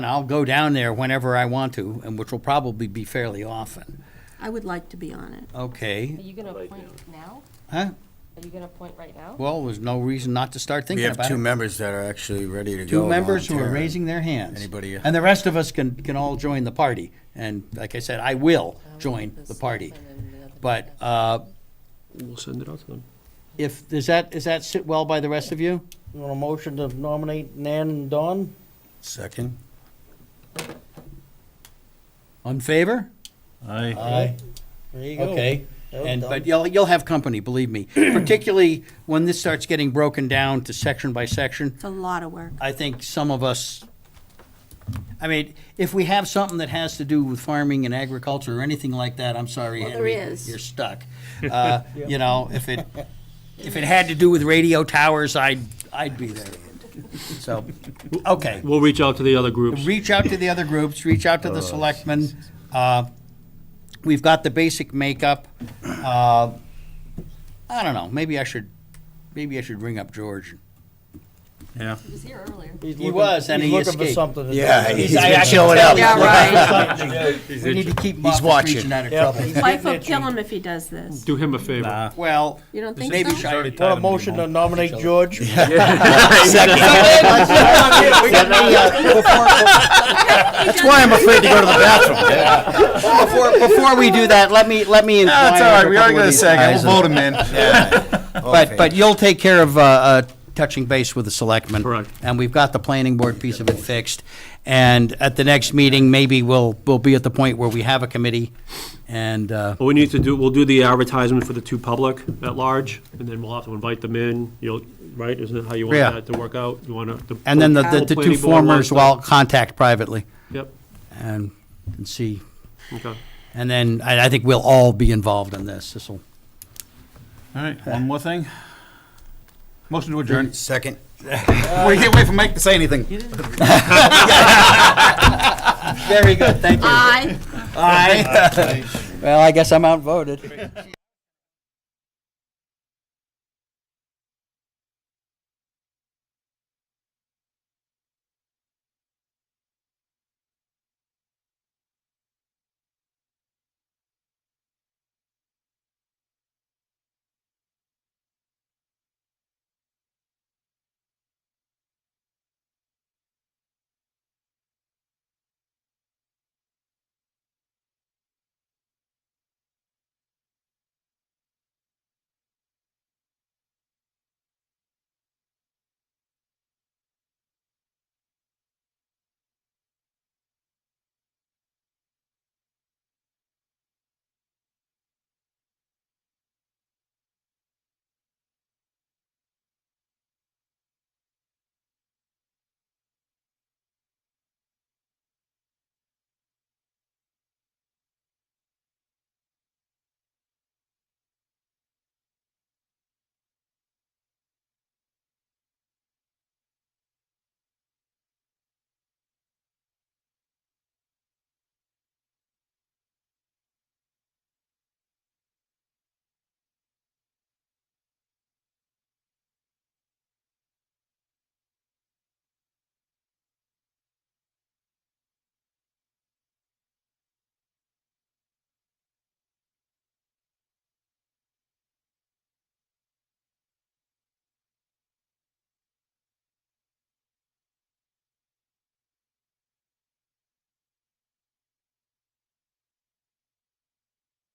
And I'll go down there whenever I want to, and which will probably be fairly often. I would like to be on it. Okay, Are you gonna appoint now? huh? Are you gonna appoint right now? Well, there's no reason not to start We thinking have about two it. members that are actually ready to go. Two members who are volunteer. raising their hands. Anybody- uh? And the rest of us can, can all join the party. And like I said, I will join the party. But, uh, We'll send it out to them. if, does that, does that sit well by the rest of you? You want a motion to nominate Nan and Don? Second. On favor? Aye. There you go. Okay. That was And, dumb. but you'll, you'll have company, believe me, particularly when this starts getting broken down to section by section. It's a lot of work. I think some of us, I mean, if we have something that has to do with farming and agriculture or anything like that, I'm sorry, Well, there Henry, is. you're stuck. Uh, You know, if it, if it had to do with radio towers, I'd, I'd be there. So, okay. We'll reach out to the other groups. Reach out to the other groups, reach out to Oh, the selectmen. Uh, We've got the basic makeup. Uh, I don't know, maybe I should, maybe I should ring up George. Yeah. He was here earlier. He's He looking- was, and he He's looking escaped. for something. to do. Yeah, he's I- been I- chilling out. Yeah, right. We need to keep him He's off the watching. streets and out of Yeah. trouble. Life will kill him if he does this. Do him a favor. Well, You don't think maybe so? should- Want a motion to nominate George? Yeah. That's why I'm afraid to go to the bathroom. before, before we do that, let me, let me. That's inquire all right, of a we couple are of gonna these second, guys. we'll vote him in. But, But, but you'll take care of, uh, uh, touching base with the selectmen. Correct. And we've got the planning board piece of it fixed. And at the next meeting, maybe we'll, we'll be at the point where we have a committee and, uh, What we need to do, we'll do the advertisement for the two public at large, and then we'll have to invite them in, you'll, right, isn't that how you want Yeah. that to work out? You wanna. and then the, the whole the two planning board wants formers will all contact privately to- Yep, and, and see. okay. And then I, I think we'll all be involved in this. This'll, All right, one more thing. Motion to adjourn. Second. We can't wait for Mike to say anything. very good, thank you. I. Aye. Well, I guess I'm outvoted.